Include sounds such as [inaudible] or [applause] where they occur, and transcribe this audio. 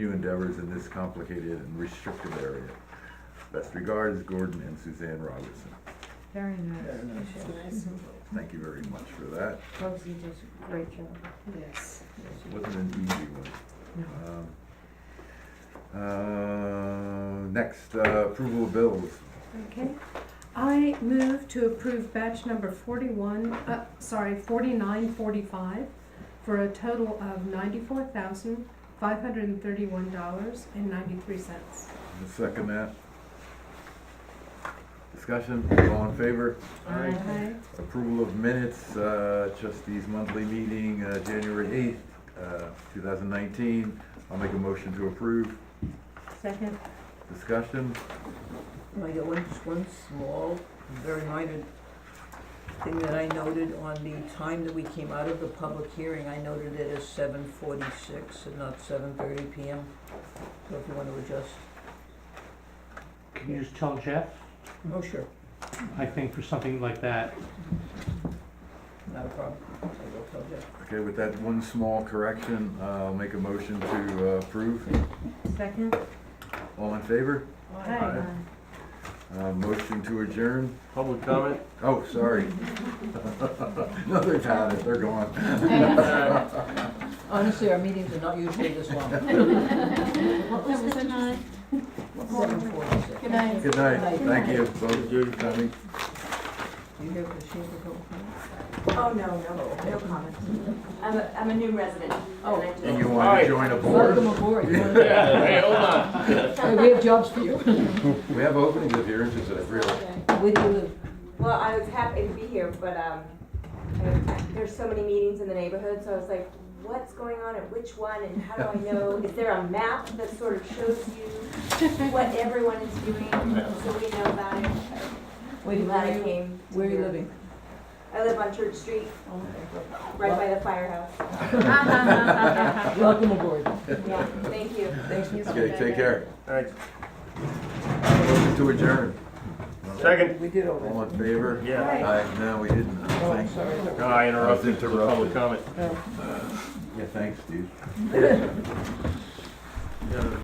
new endeavors in this complicated and restrictive area. Best regards, Gordon and Suzanne Robertson. Very nice. Very nice. Nice. Thank you very much for that. Bugsy does a great job. Yes. It wasn't an easy one. No. Um, uh, Next, uh, approval of bills. Okay. I move to approve batch number forty-one, uh, sorry, forty-nine forty-five for a total of ninety-four thousand, five hundred and thirty-one dollars and ninety-three cents. I'll Second that. Discussion, all in favor? Aye. Approval of minutes, uh, trustees monthly meeting, uh, January 8th, uh, 2019. I'll make a motion to approve. Second, Discussion, And I got one, just one small, very minor thing that I noted on the time that we came out of the public hearing, I noted it as seven forty-six and not seven thirty PM. So if you want to adjust, Can you just tell Jeff? oh, sure, I think for something like that, not a problem, I will tell Jeff. okay, with that one small correction, uh, I'll make a motion to uh, approve. second. All in favor? Aye. Uh, Motion to adjourn. Public comment? Oh, sorry. [laughs] No, they've had it, they're gone. Honestly, our meetings are not usually this [laughs] long, What was the time? seven forty-six. Good night. Good night, Good thank you, both of you for coming. Do you have a machine for public comment? Oh, no, no, no comment. I'm a, I'm a new resident. Oh. And you Oh. want to Hi. join a Welcome board? aboard, Yeah, [laughs] hey, hold on. Hey, we have jobs for you. We have openings if you're interested, I realize. Where do you live? Well, I was happy to be here, but, um, I- I- there's so many meetings in the neighborhood, so I was like, what's going on at which one and how do I know? Is there a map that sort of shows you what everyone is doing, so we know about it? Wait, I'm Glad I where are you, came. to where are you your- living? Oh, I live on Church Street, right by the [laughs] firehouse. [laughs] Welcome aboard. Yeah, thank you. Thanks. Okay, take care. All right, Motion to adjourn. second. We did all that. All in favor? Yeah. Aye, no, we didn't, Oh, I'm thanks. sorry. No, I interrupted to the public comment. Yeah, thanks, dude. Yeah,